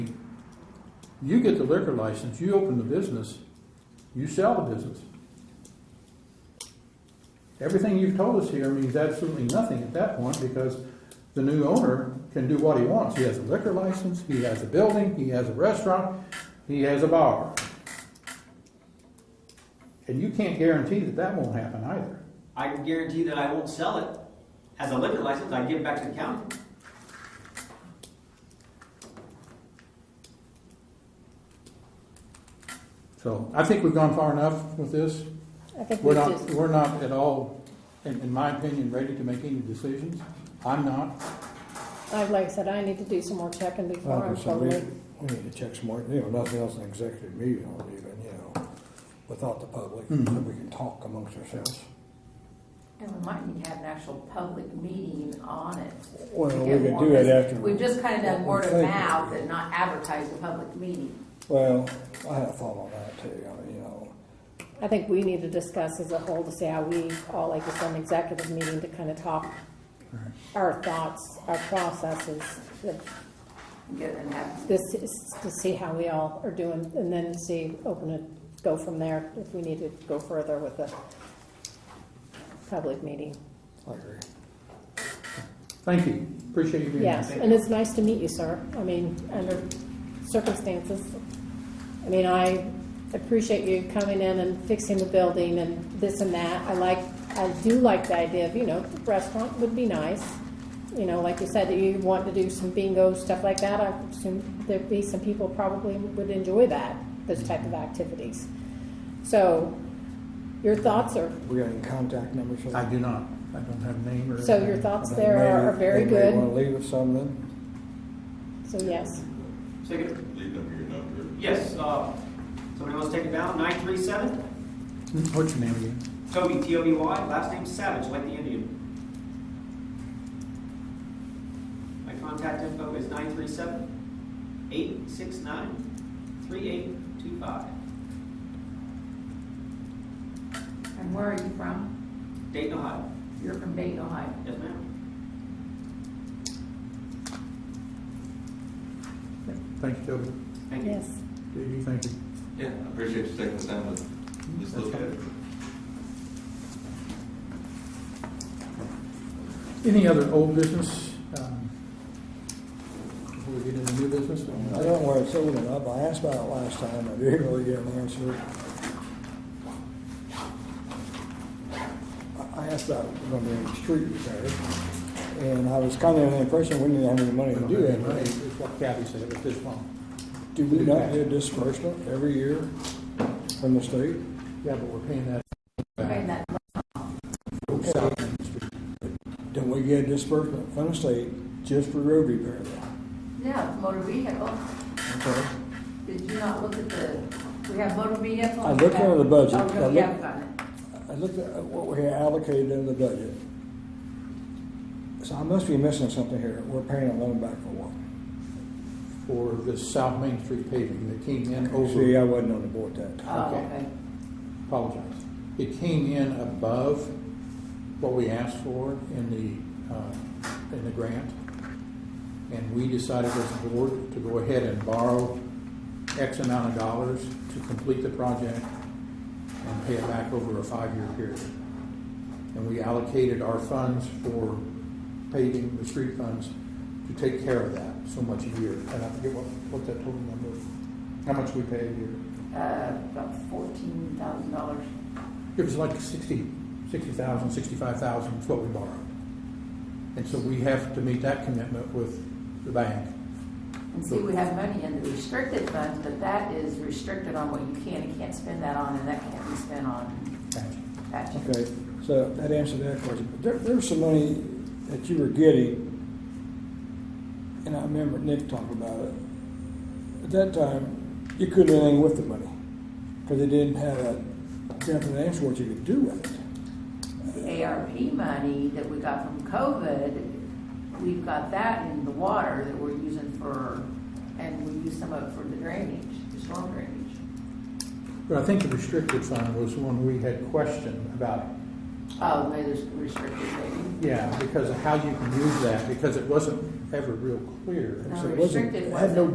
You get the liquor license, you open the business, you sell the business. Everything you've told us here means absolutely nothing at that point because the new owner can do what he wants. He has a liquor license, he has a building, he has a restaurant, he has a bar. And you can't guarantee that that won't happen either. I can guarantee that I won't sell it. As a liquor license, I give it back to the county. So I think we've gone far enough with this. I think we We're not, just, we're not at all, in, in my opinion, ready to make any decisions. I'm not. I- like I said, I need to do some more checking before I'm Obviously, totally, we, we need to check some more, you know, nothing else in executive meeting or even, you know, without the public, Mhm. that we can talk amongst ourselves. And we might need to have an actual public meeting on it. Well, to we get could more do it business. after. We've just kind of done what word we of think. mouth and not advertised a public meeting. Well, I had a thought on that too, I mean, you know, I think we need to discuss as a whole to see how we all, like just an executive meeting to kind of talk Right. our thoughts, our processes, that and Get and have, this is to see how we all are doing and then see, open it, go from there if we need to go further with the public meeting. I agree. Thank you. Appreciate you being here. Yes, and it's nice to meet you, sir. I mean, under circumstances, I mean, I appreciate you coming in and fixing the building and this and that. I like, I do like the idea of, you know, the restaurant would be nice. You know, like you said, that you want to do some bingo, stuff like that. I assume there'd be some people probably would enjoy that, those type of activities. So, your thoughts are We got any contact numbers? or- I do not. I don't have a name or. So your thoughts- They there may- are very They good. may wanna leave us some then, so yes. So, you- Leave them your number. yes, uh, somebody wants to take it down, nine three seven, What's your name again? Toby, T O B Y, last name Savage, like the Indian. My contact info is nine three seven, eight six nine, three eight two five. and where are you from? Dayton, Ohio. You're from Dayton, Ohio. Yes, ma'am. Thank you, Toby. Thank you. Yes. Do you, thank you. Yeah, I appreciate you taking the time to just look at it. Any other old business? um, Before we get into new business? I don't know where it's open up, I asked about it last time, I didn't really get an answer. I- I asked about gonna be any street repair, and I was kind of under the impression we didn't have any money to do that. Right, It's what Kathy said, it's this one. Do we not get disbursement every year from the state? Yeah, but we're paying that. Okay, that, Don't we get disbursement from the state just for road repair though? no, motor vehicle. Okay. Did you not look at the, we have motor vehicle? I looked under the budget. Oh, I no, looked- we haven't done it. I looked at what we had allocated in the budget. So I must be missing something here. We're paying a loan back for what? For the South Main Street paving that came in See, I over, wasn't on the board that time. Oh, Okay. okay. apologize. It came in above what we asked for in the, uh, in the grant. And we decided as a board to go ahead and borrow X amount of dollars to complete the project and pay it back over a five-year period. And we allocated our funds for paving, the street funds, to take care of that so much a year. And I forget what, what that total number, how much we pay a year. Uh, about fourteen thousand dollars. It was like sixty, sixty thousand, sixty-five thousand is what we borrowed. And so we have to meet that commitment with the bank. And see, we have money in the restricted funds, but that is restricted on what you can and can't spend that on, and that can't be spent on patching. Okay, so that answered that question. But There, there was some money that you were getting, and I remember Nick talking about it. At that time, you couldn't do anything with the money, because they didn't have a definite answer what you could do with it. The ARP money that we got from COVID, we've got that in the water that we're using for, and we use some of it for the drainage, the storm drainage. But I think the restricted fund was one we had questioned about, Oh, maybe there's restricted maybe. yeah, because of how you can use that, because it wasn't ever real clear. No, So it wasn't- restricted it had no wasn't.